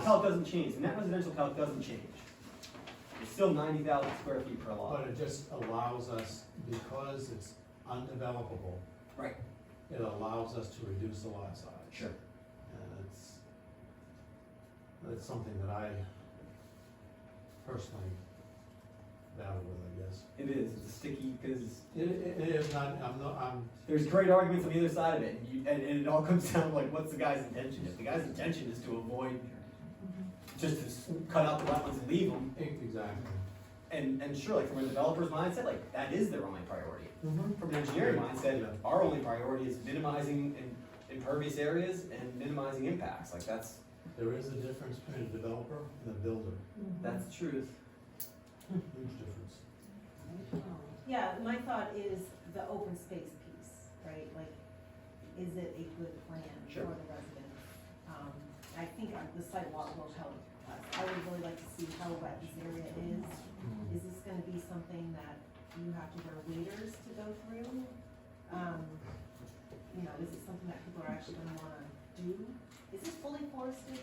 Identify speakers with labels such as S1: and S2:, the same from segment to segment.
S1: calc doesn't change, the net residential calc doesn't change. It's still ninety thousand square feet per lot.
S2: But it just allows us, because it's undevelopable,
S1: Right.
S2: it allows us to reduce the lot size.
S1: Sure.
S2: And it's, that's something that I personally battle with, I guess.
S1: It is, it's sticky, because
S2: It, it- it is not, I'm not, I'm,
S1: there's great arguments on the other side of it, and you, and, and it all comes down to like, what's the guy's intention? If the guy's intention is to avoid, just to s- cut out the wetlands and leave them,
S2: exactly.
S1: and, and sure, like, from a developer's mindset, like, that is their only priority.
S2: Mm-hmm.
S1: From an engineering mindset,
S2: Yeah.
S1: our only priority is minimizing im- impervious areas and minimizing impacts, like, that's,
S2: There is a difference between a developer and a builder,
S1: that's the truth.
S2: huge difference.
S3: Yeah, my thought is the open space piece, right, like, is it a good plan
S1: Sure.
S3: for the residents? Um, I think on the sidewalk will help us, I would really like to see how wet this area is, is this gonna be something that you have to wear waders to go through? Um, you know, is it something that people are actually gonna wanna do? Is this fully forested?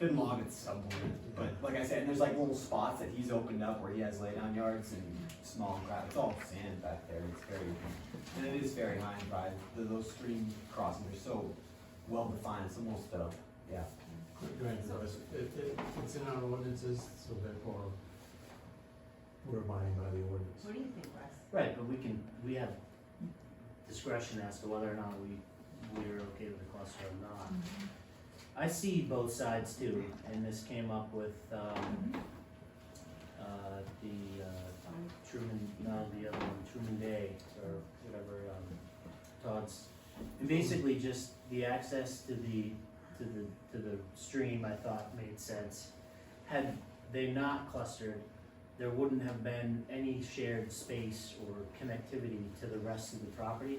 S1: It's been logged at some point, but like I said, and there's like little spots that he's opened up where he has lay down yards and small crap, it's all sand back there, it's very, and it is very high and dry, Th- those stream crossings are so well defined, it's almost, uh, yeah.
S2: Granted,
S3: So-
S2: it's- it, it, it's in our ordinances, so therefore, we're abiding by the ordinance.
S3: What do you think, Wes?
S4: Right, but we can, we have discretion as to whether or not we, we're okay with the cluster or not. I see both sides too, and this came up with, um, uh, the, uh,
S3: Sorry.
S4: Truman, no, the other one, Truman Day, or whatever, um, Todd's. And basically just the access to the, to the, to the stream, I thought made sense. Had they not clustered, there wouldn't have been any shared space or connectivity to the rest of the property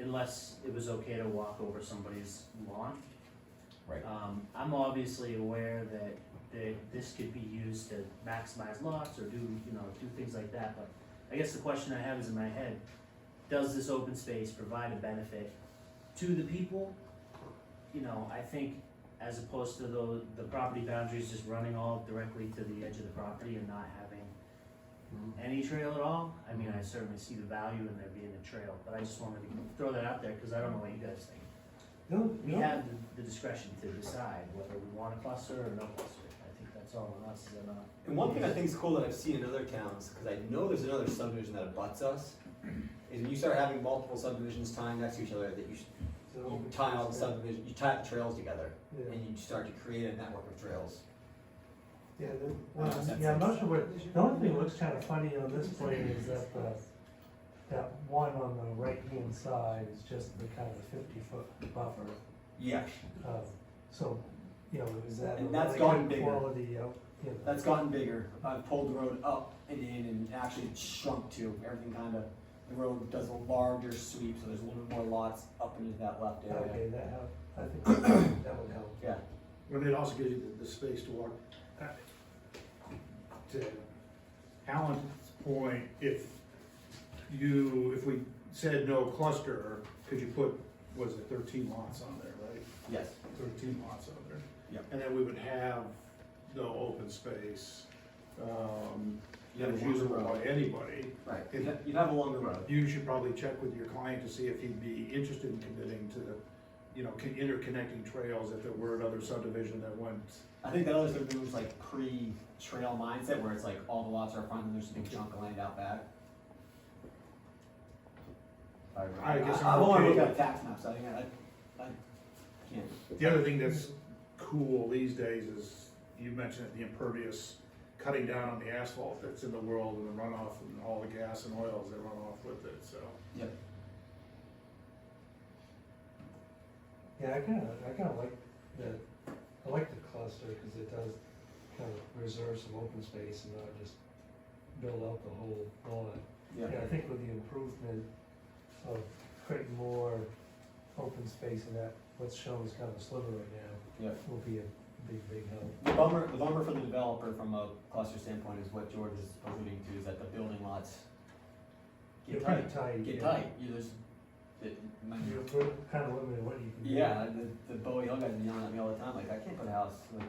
S4: unless it was okay to walk over somebody's lawn.
S1: Right.
S4: Um, I'm obviously aware that, that this could be used to maximize lots or do, you know, do things like that, but I guess the question I have is in my head, does this open space provide a benefit to the people? You know, I think as opposed to the, the property boundaries just running all directly to the edge of the property and not having
S2: Mhm.
S4: any trail at all, I mean, I certainly see the value in there being a trail, but I just wanted to throw that out there, cause I don't know what you guys think.
S2: No,
S4: We
S2: no.
S4: have the- the discretion to decide whether we want a cluster or no cluster, I think that's all on us, is it not?
S1: And one thing I think is cool that I've seen in other towns, because I know there's another subdivision that abuts us, is when you start having multiple subdivisions tying next to each other, that you, should- you tie all the subdivisions, you tie the trails together,
S2: Yeah.
S1: and you start to create a network of trails.
S5: Yeah, the,
S1: Uh,
S5: well,
S1: that's
S5: yeah,
S1: it.
S5: most of it, the only thing that looks kind of funny on this plan is that, uh, that one on the right-hand side is just the kind of fifty-foot buffer.
S1: Yeah.
S5: Um, so, you know, is that a
S1: And that's
S5: really
S1: gotten
S5: good
S1: bigger.
S5: quality, uh, you know?
S1: That's gotten bigger. I've pulled the road up and in and actually it's shrunk too. Everything kind of, the road does a larger sweep, so there's a little bit more lots up into that left area.
S5: Okay, that help, I think that would help.
S1: Yeah,
S6: And it also gives you the, the space to walk. Uh, To Alan's point, if you, if we said no cluster, could you put, was it thirteen lots on there, right?
S1: yes.
S6: Thirteen lots on there.
S1: Yep.
S6: And then we would have no open space, um,
S1: You
S6: that
S1: have
S6: is
S1: a longer
S6: usable by
S1: road.
S6: anybody.
S1: Right.
S6: You'd ha-
S1: You'd have a longer road.
S6: You should probably check with your client to see if he'd be interested in committing to the, you know, con- interconnecting trails if there were another subdivision that went.
S1: I think that other sort of was like pre-trail mindset where it's like all the lots are front and there's a big chunk of land out back. I
S6: I guess
S1: I
S6: I'm
S1: want to
S6: okay.
S1: look at tax maps. I think I, I can't.
S6: The other thing that's cool these days is, you mentioned it, the impervious, cutting down on the asphalt that's in the world and the runoff and all the gas and oils that run off with it, so.
S1: Yep.
S5: Yeah, I kinda, I kinda like the, I like the cluster, cause it does kind of reserve some open space and not just build out the whole lot.
S1: Yeah.
S5: Yeah, I think with the improvement of creating more open space in that, what's shown is kind of a sliver right now.
S1: Yeah.
S5: Will be a big, big help.
S1: The bummer, the bummer for the developer from a cluster standpoint is what George is alluding to, is that the building lots
S5: They're
S1: get tight.
S5: pretty tight,
S1: Get
S5: yeah.
S1: tight, You- there's that my,
S5: You're kind of limited what you can do.
S1: yeah, the, the Bowie Hill guys be yelling at me all the time, like, I can't put a house, like,